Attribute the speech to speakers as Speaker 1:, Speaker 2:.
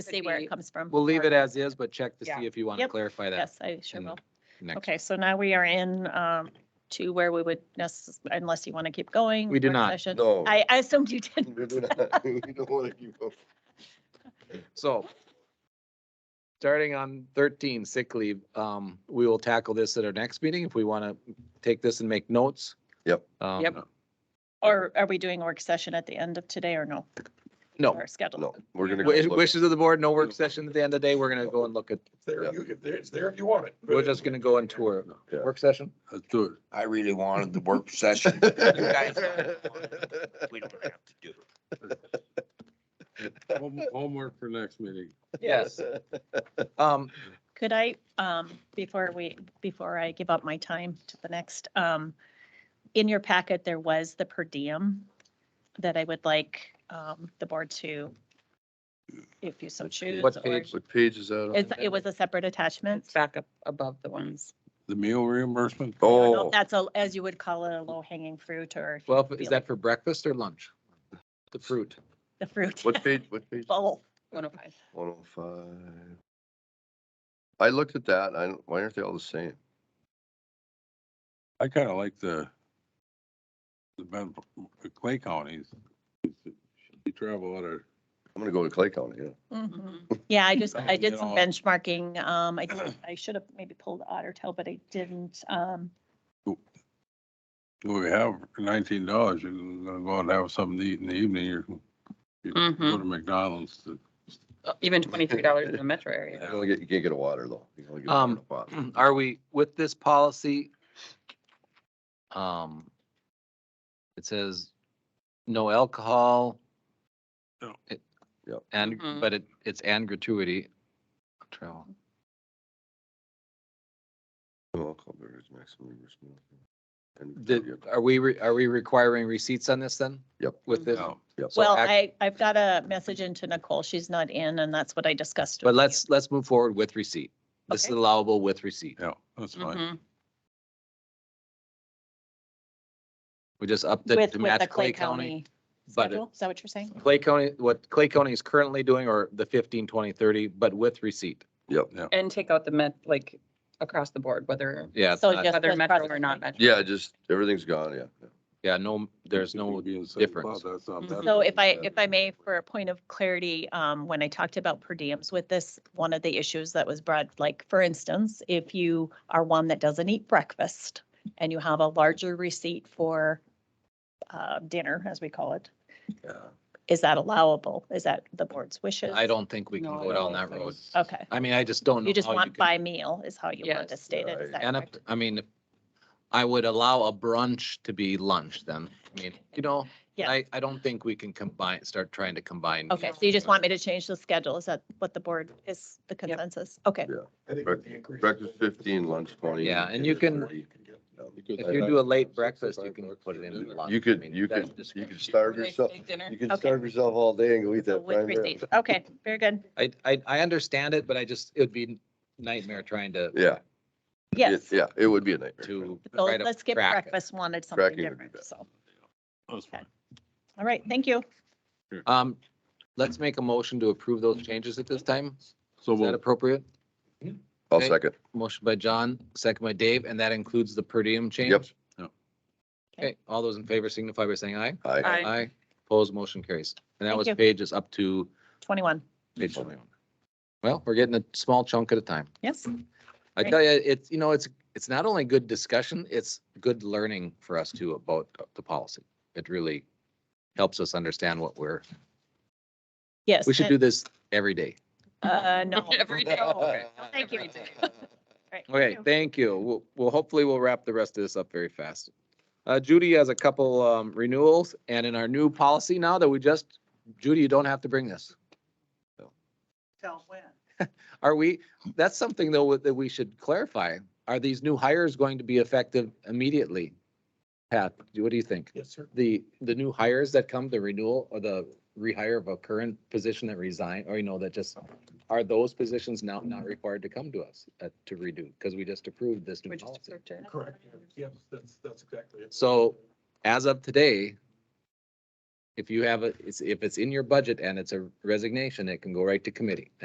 Speaker 1: to
Speaker 2: could
Speaker 1: see where
Speaker 2: be-
Speaker 1: it comes from.
Speaker 3: We'll leave it
Speaker 1: Or-
Speaker 3: as is, but check to
Speaker 2: Yeah.
Speaker 3: see if you want to
Speaker 1: Yep.
Speaker 3: clarify that.
Speaker 1: Yes, I sure
Speaker 3: in
Speaker 1: will.
Speaker 3: next-
Speaker 1: Okay, so now we are in um, to where we would, necess- unless you want to keep going.
Speaker 3: We do
Speaker 1: work
Speaker 3: not.
Speaker 1: session.
Speaker 4: No.
Speaker 1: I I assumed you did.
Speaker 4: We do not- we don't wanna keep up.
Speaker 3: So starting on thirteen sick leave, um, we will tackle this at our next meeting if we want to take this and make notes.
Speaker 4: Yep.
Speaker 3: Um,
Speaker 2: Yep.
Speaker 1: Or are we doing a work session at the end of today or no?
Speaker 3: No,
Speaker 1: Or scheduled?
Speaker 4: No, we're gonna. go
Speaker 3: Wi-
Speaker 4: look.
Speaker 3: wishes of the board, no work session at the end of the day. We're going to go and look at,
Speaker 5: It's there,
Speaker 4: Yeah.
Speaker 5: you can, there- it's there if you want it.
Speaker 3: we're just going to go and tour.
Speaker 4: Yeah.
Speaker 3: Work session?
Speaker 6: Let's do it.
Speaker 7: I really wanted the work session. You guys don't want it. We don't have to do it.
Speaker 6: Home- Homework for next meeting.
Speaker 3: Yes. Um,
Speaker 1: Could I, um, before we, before I give up my time to the next, um, in your packet, there was the per diem that I would like, um, the board to, if you so choose.
Speaker 3: What
Speaker 1: or-
Speaker 3: page?
Speaker 5: What page is that
Speaker 1: It's, it was a separate attachment.
Speaker 2: It's back up above the ones.
Speaker 6: The meal reimbursement.
Speaker 1: I don't know if
Speaker 4: Oh,
Speaker 1: That's a, as you would call it, a low hanging fruit or
Speaker 3: well, is that for breakfast or lunch? The fruit.
Speaker 1: the fruit.
Speaker 5: What page, what page?
Speaker 1: Bowl.
Speaker 2: One oh five.
Speaker 4: one oh five. I looked at that, I, don't- why aren't they all the same?
Speaker 6: I kind of like the, the Ben, Clay counties. You travel out of,
Speaker 4: I'm gonna go to Clay County, yeah.
Speaker 2: Mm-hmm.
Speaker 1: Mhm. Yeah, I just, I
Speaker 6: You
Speaker 1: did some
Speaker 6: know.
Speaker 1: benchmarking. Um, I, I should have maybe pulled Otter Tail, but I didn't. Um,
Speaker 6: well, we have nineteen dollars, you're gonna go and have something to eat in the evening, you're you go to McDonald's to
Speaker 2: Mm-hmm. Even twenty-three dollars in the metro area.
Speaker 4: You only get, you can't get a water though. You can only get a
Speaker 3: Um,
Speaker 4: water bottle.
Speaker 3: are we with this policy? Um, it says no alcohol.
Speaker 6: No.
Speaker 3: It-
Speaker 4: Yep.
Speaker 3: And,
Speaker 1: Mm-hmm.
Speaker 2: Mhm.
Speaker 3: but it, it's and gratuity. Travel.
Speaker 4: No alcohol beverage, maximum reimbursement. And-
Speaker 3: Did, are we, re- are we requiring receipts on this then?
Speaker 4: Yep.
Speaker 3: With this?
Speaker 6: No.
Speaker 4: Yep.
Speaker 3: So
Speaker 1: well,
Speaker 3: act-
Speaker 1: I, I've got a message into Nicole. She's not in and that's what I discussed.
Speaker 3: But
Speaker 1: with
Speaker 3: let's, let's move forward with receipt. This is
Speaker 1: Okay.
Speaker 3: allowable with receipt.
Speaker 6: Yeah, that's fine.
Speaker 2: Mhm.
Speaker 3: We just upped
Speaker 1: you.
Speaker 3: it
Speaker 1: With,
Speaker 3: to
Speaker 1: with the
Speaker 3: match
Speaker 1: Clay County
Speaker 3: but it-
Speaker 1: schedule. Is that what you're saying?
Speaker 3: Clay County, what Clay County is currently doing or the 15, 20, 30, but with receipt.
Speaker 2: And take out the met, like, across the board, whether,
Speaker 3: Yeah. it's
Speaker 1: So
Speaker 3: not-
Speaker 1: just
Speaker 2: whether
Speaker 1: with
Speaker 2: metro or
Speaker 1: Providence
Speaker 2: not
Speaker 1: County.
Speaker 2: metro.
Speaker 4: Yeah, just, everything's gone, yeah. yeah.
Speaker 3: Yeah, no, there's no,
Speaker 6: Be in the same
Speaker 3: difference.
Speaker 6: spot, that's not
Speaker 5: Mm-hmm.
Speaker 6: that
Speaker 1: So
Speaker 6: big
Speaker 1: if I,
Speaker 6: of a-
Speaker 1: if I may, for a point of clarity, um, when I talked about per diems with this, one of the issues that was brought, like, for instance, if you are one that doesn't eat breakfast and you have a larger receipt for, uh, dinner, as we call it,
Speaker 4: Yeah.
Speaker 1: is that allowable? Is that the board's wishes?
Speaker 3: I don't think we can
Speaker 2: No, I
Speaker 3: go
Speaker 2: don't
Speaker 3: down that
Speaker 2: think
Speaker 3: road.
Speaker 2: so.
Speaker 1: Okay,
Speaker 3: I mean, I just don't know.
Speaker 1: you just
Speaker 3: how
Speaker 1: want
Speaker 3: can-
Speaker 1: by meal is how you want it
Speaker 2: Yes.
Speaker 1: stated, is that
Speaker 3: And if-
Speaker 1: correct?
Speaker 3: I mean, I would allow a brunch to be lunch then. I mean, you know,
Speaker 1: Yeah.
Speaker 3: I, I don't think we can combine, start trying to combine.
Speaker 1: Okay,
Speaker 3: meals.
Speaker 1: so you just want me to change the schedule, is that what the board is, the consensus? Okay,
Speaker 5: I think
Speaker 4: Breakfast-
Speaker 5: the increase-
Speaker 4: Breakfast fifteen, lunch twenty.
Speaker 3: Yeah, and you can-
Speaker 4: 30.
Speaker 5: You could-
Speaker 3: If you do a late breakfast, you can put it in. lunch.
Speaker 4: You
Speaker 3: I
Speaker 4: could,
Speaker 3: mean,
Speaker 4: you
Speaker 3: that's
Speaker 4: could,
Speaker 3: just-
Speaker 4: you could starve
Speaker 2: Big-
Speaker 4: yourself,
Speaker 2: big dinner.
Speaker 4: you could
Speaker 1: Okay.
Speaker 4: starve yourself all day and go eat
Speaker 1: so
Speaker 4: that prime
Speaker 1: with
Speaker 4: rib.
Speaker 1: receipts, okay, very good,
Speaker 3: I, I, I understand it, but I just, it would be nightmare trying to,
Speaker 4: Yeah. it-
Speaker 1: yes.
Speaker 4: Yeah, it would be a nightmare.
Speaker 3: to.
Speaker 1: So
Speaker 3: try to
Speaker 1: let's skip
Speaker 3: crack it.
Speaker 1: breakfast, wanted something
Speaker 4: Cracking would be
Speaker 1: different,
Speaker 4: better.
Speaker 1: so,
Speaker 6: That's fine.
Speaker 1: all right, thank you.
Speaker 3: Um, let's make a motion to approve those changes at this time.
Speaker 6: So
Speaker 3: Is that
Speaker 6: we'll,
Speaker 3: appropriate?
Speaker 4: I'll
Speaker 3: Okay.
Speaker 4: second.
Speaker 3: Motion by John, second by Dave, and that includes the per diem change?
Speaker 4: Yep.
Speaker 6: Yep.
Speaker 3: Okay, all those in favor signify by saying aye.
Speaker 4: Aye.
Speaker 2: Aye.
Speaker 3: Opposed, motion carries. And that
Speaker 1: Thank
Speaker 3: was
Speaker 1: you.
Speaker 3: pages up to
Speaker 1: Twenty-one,
Speaker 3: page twenty-one. Well, we're getting a small chunk at a time.
Speaker 1: yes,
Speaker 3: I
Speaker 1: Great.
Speaker 3: tell you, it's, you know, it's, it's not only good discussion, it's good learning for us too about the policy. It really helps us understand what we're,
Speaker 1: yes.
Speaker 3: we should do this every day.
Speaker 1: Uh, no.
Speaker 2: Every day. Okay.
Speaker 1: Thank you.
Speaker 2: Every day.
Speaker 1: Right, thank
Speaker 3: Okay,
Speaker 1: you.
Speaker 3: thank you. We'll, we'll hopefully we'll wrap the rest of this up very fast. Uh, Judy has a couple, um, renewals and in our new policy now that we just, Judy, you don't have to bring this.
Speaker 8: Tell when.
Speaker 3: Are we, that's something though that we should clarify. Are these new hires going to be effective immediately? Pat, what do you think?
Speaker 5: Yes, sir.
Speaker 3: The, the new hires that come, the renewal or the rehire of a current position that resign, or you know, that just, are those positions now not required to come to us uh, to redo? Because we just approved this new
Speaker 2: We just
Speaker 3: policy.
Speaker 2: approved it.
Speaker 5: Correct, yes, that's, that's exactly it.
Speaker 3: So as of today, If you have a, it's- if it's in your budget and it's a resignation, it can go right to committee.